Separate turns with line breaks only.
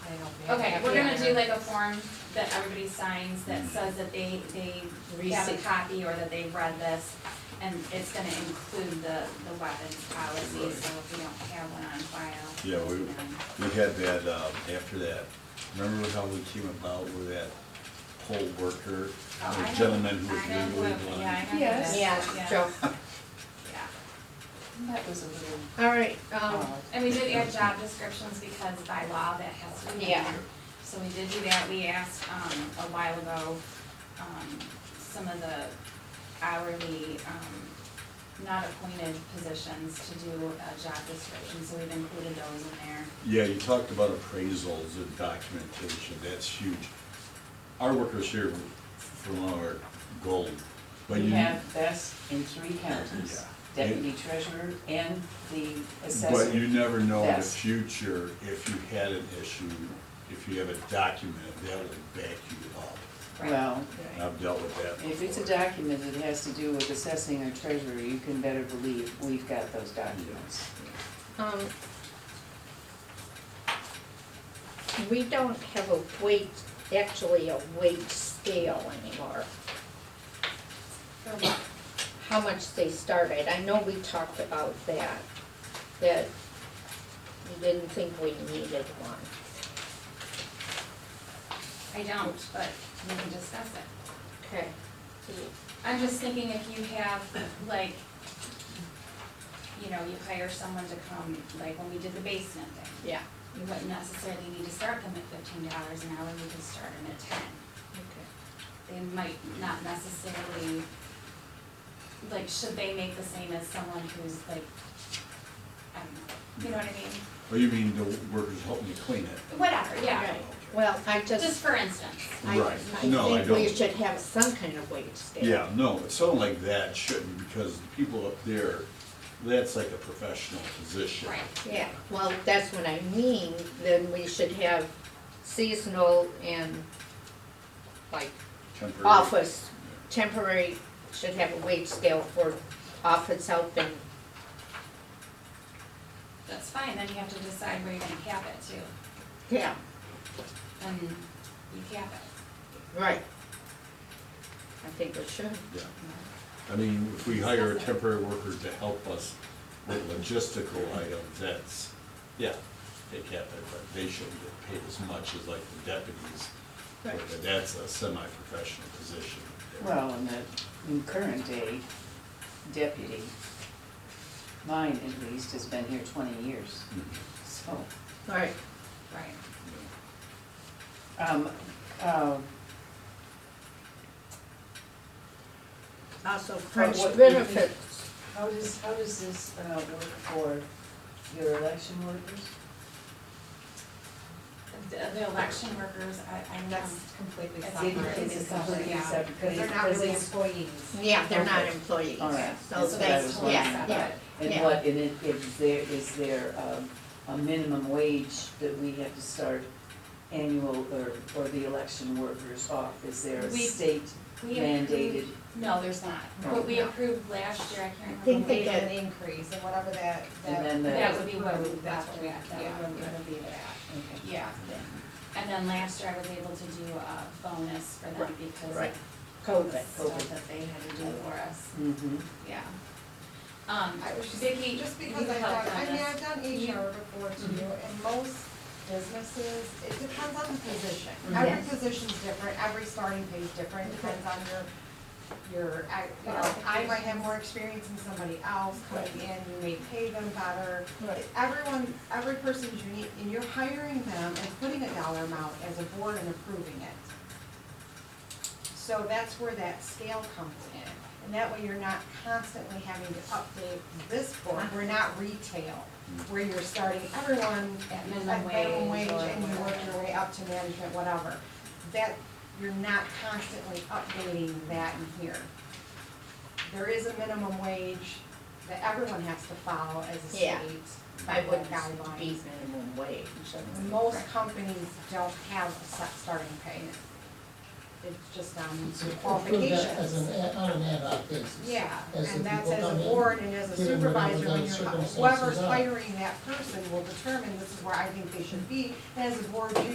Okay, we're gonna do
Yeah.
like a form that everybody signs that says that they, they have a
Receipt.
copy or that they've read this. And it's gonna include the, the weapons policy,
Right.
so if we don't have one on file. Um,
Yeah, we,
then-
we had that, uh, after that, remember how we came about with that poll worker,
Oh, I know-
the gentleman who was
I know
legally
who- Yeah,
blind?
I know who
Yes.
that-
Yeah, Joe.
yeah.
That was a little.
All right, um,
And we did add job descriptions because by law that has to be
Yeah.
done. So we did do that, we asked, um, a while ago, um, some of the hourly, um, not appointed positions to do a job description, so we've included those in there.
Yeah, you talked about appraisals and documentation, that's huge. Our workers here for long are gold, but
We
you,
have this in three counties,
Yeah.
deputy treasurer and the
but you
assessor.
never know in the
Yes.
future if you had an issue, if you have a document, that will back you up.
Well,
Oh,
And I've dealt with that
if it's a
before.
document that has to do with assessing our treasurer, you can better believe we've got those documents.
um, we don't have a weight, actually a weight scale anymore,
For what?
how much they started. I know we talked about that, that we didn't think we needed one.
I don't, but we can discuss it.
Okay.
I'm just thinking if you have, like, you know, you hire someone to come, like when we did the basement thing.
Yeah,
You wouldn't necessarily need to start them at fifteen dollars an hour, you could start them at ten.
okay.
They might not necessarily, like, should they make the same as someone who's like, I don't know, you know what I mean?
Oh, you mean the workers helping you clean it?
Whatever, yeah,
Right. Well, I
just
just,
for instance.
I, I
Right, no, I
think we
don't.
should have some kind of weight scale.
Yeah, no, but something like that shouldn't, because the people up there, that's like a professional position.
Right.
Yeah, well, that's what I mean, then we should have seasonal and like
Temporary.
office, temporary, should have a wage scale for office help and,
That's fine, then you have to decide where you're gonna cap it to,
yeah,
and you cap it.
right. I think we should.
Yeah. I mean, if we hire a temporary worker to help us with logistical items, that's, yeah, they can't, but they shouldn't get paid as much as like the deputies.
Right.
But that's a semi-professional position.
Well, in the in current day deputy, mine at least, has been here twenty years,
Mhm.
so.
All right,
Right.
Um, uh,
also
But
fringe
what-
benefits,
how does, how does this, uh, work for your election workers?
The, the election workers, I, I know,
That's completely
That's
separate.
completely separate, yeah.
Because they're not really employees.
yeah, they're not
Okay.
employees,
All right.
so
So
that's,
that's totally
yeah, yeah,
separate.
And
Yeah.
what, and it, is there, is there, um, a minimum wage that we have to start annual or, or the election workers off? Is there a
We-
state
we
mandated?
approved, no, there's not, but we approved last year, I can't remember.
I think
what
they
it
get-
An increase and whatever that, that.
And then the-
That would be what we,
That's
that's what
what
we,
we-
that
yeah,
would,
yeah.
would be that,
Okay.
yeah. And then last year I was able to do a bonus for them
Right,
because
right.
of the
COVID,
stuff that they had to do for us,
Mm-hmm.
yeah. Um,
I was just-
Vicky,
Just
you
because I've
helped
done,
on
I mean,
this. Mm-hmm.
I've done HR before too, and most businesses, it depends on the position.
Mm-hmm.
Every
Yes.
position's different, every starting pay's different, depends on your, your, I, you know, I might have more experience than somebody else coming in, you may pay them better.
Right.
Everyone, every person's unique, and you're hiring them and putting a dollar amount as a board and approving it. So that's where that scale comes in, and that way you're not constantly having to update this board, we're not retail, where you're starting everyone
At
at
minimum
minimum
wage
wage
or
and you work
whatever.
your way up to management, whatever. That, you're not constantly updating that in here. There is a minimum wage that everyone has to follow as a state
Yeah. I would
guidelines.
be minimum wage.
Most companies don't have a set starting pay. It's just on
So approve
qualifications.
that as an, ad- on an ad hoc basis.
Yeah,
As the
and that's
people
as
come
a
in,
board and as a
given whatever
supervisor, when
those
you're,
circumstances
whoever's
are.
hiring that person will determine this is where I think they should be. And as a board, you